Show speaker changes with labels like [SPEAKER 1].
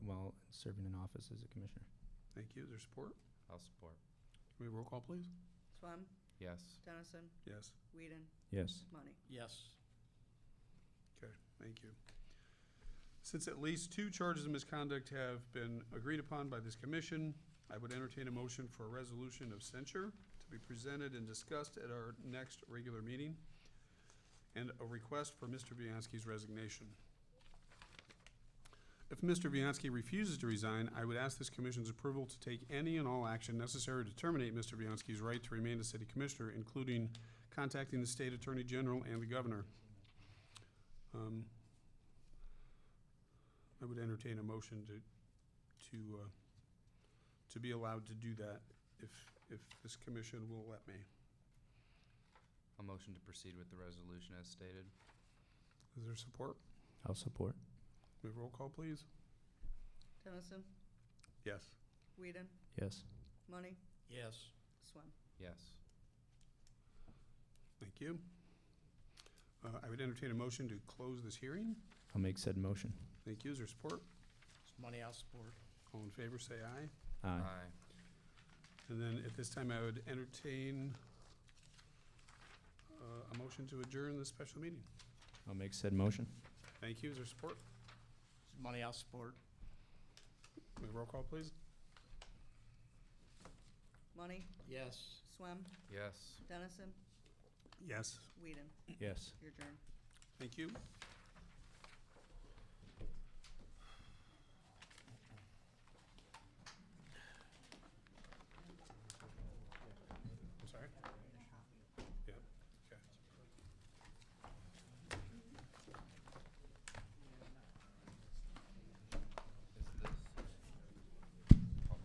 [SPEAKER 1] serving in office as a commissioner.
[SPEAKER 2] Thank you. Is there support?
[SPEAKER 3] I'll support.
[SPEAKER 2] Can we roll call, please?
[SPEAKER 4] Swam,
[SPEAKER 3] Yes.
[SPEAKER 4] Dennison,
[SPEAKER 2] Yes.
[SPEAKER 4] Whedon,
[SPEAKER 1] Yes.
[SPEAKER 4] Money.
[SPEAKER 5] Yes.
[SPEAKER 2] Okay, thank you. Since at least two charges of misconduct have been agreed upon by this commission, I would entertain a motion for a resolution of censure to be presented and discussed at our next regular meeting, and a request for Mr. Bianski's resignation. If Mr. Bianski refuses to resign, I would ask this commission's approval to take any and all action necessary to terminate Mr. Bianski's right to remain a city commissioner, including contacting the state attorney general and the governor. Um, I would entertain a motion to, to, uh, to be allowed to do that if, if this commission will let me.
[SPEAKER 3] A motion to proceed with the resolution as stated.
[SPEAKER 2] Is there support?
[SPEAKER 1] I'll support.
[SPEAKER 2] May I roll call, please?
[SPEAKER 4] Dennison,
[SPEAKER 2] Yes.
[SPEAKER 4] Whedon,
[SPEAKER 1] Yes.
[SPEAKER 4] Money,
[SPEAKER 5] Yes.
[SPEAKER 4] Swam.
[SPEAKER 3] Yes.
[SPEAKER 2] Thank you. Uh, I would entertain a motion to close this hearing.
[SPEAKER 1] I'll make said motion.
[SPEAKER 2] Thank you. Is there support?
[SPEAKER 5] It's money I'll support.
[SPEAKER 2] All in favor, say aye.
[SPEAKER 1] Aye.
[SPEAKER 2] And then at this time, I would entertain uh, a motion to adjourn this special meeting.
[SPEAKER 1] I'll make said motion.
[SPEAKER 2] Thank you. Is there support?
[SPEAKER 5] It's money I'll support.
[SPEAKER 2] May I roll call, please?
[SPEAKER 4] Money,
[SPEAKER 5] Yes.
[SPEAKER 4] Swam,
[SPEAKER 3] Yes.
[SPEAKER 4] Dennison,
[SPEAKER 2] Yes.
[SPEAKER 4] Whedon,
[SPEAKER 1] Yes.
[SPEAKER 4] your turn.
[SPEAKER 2] Thank you.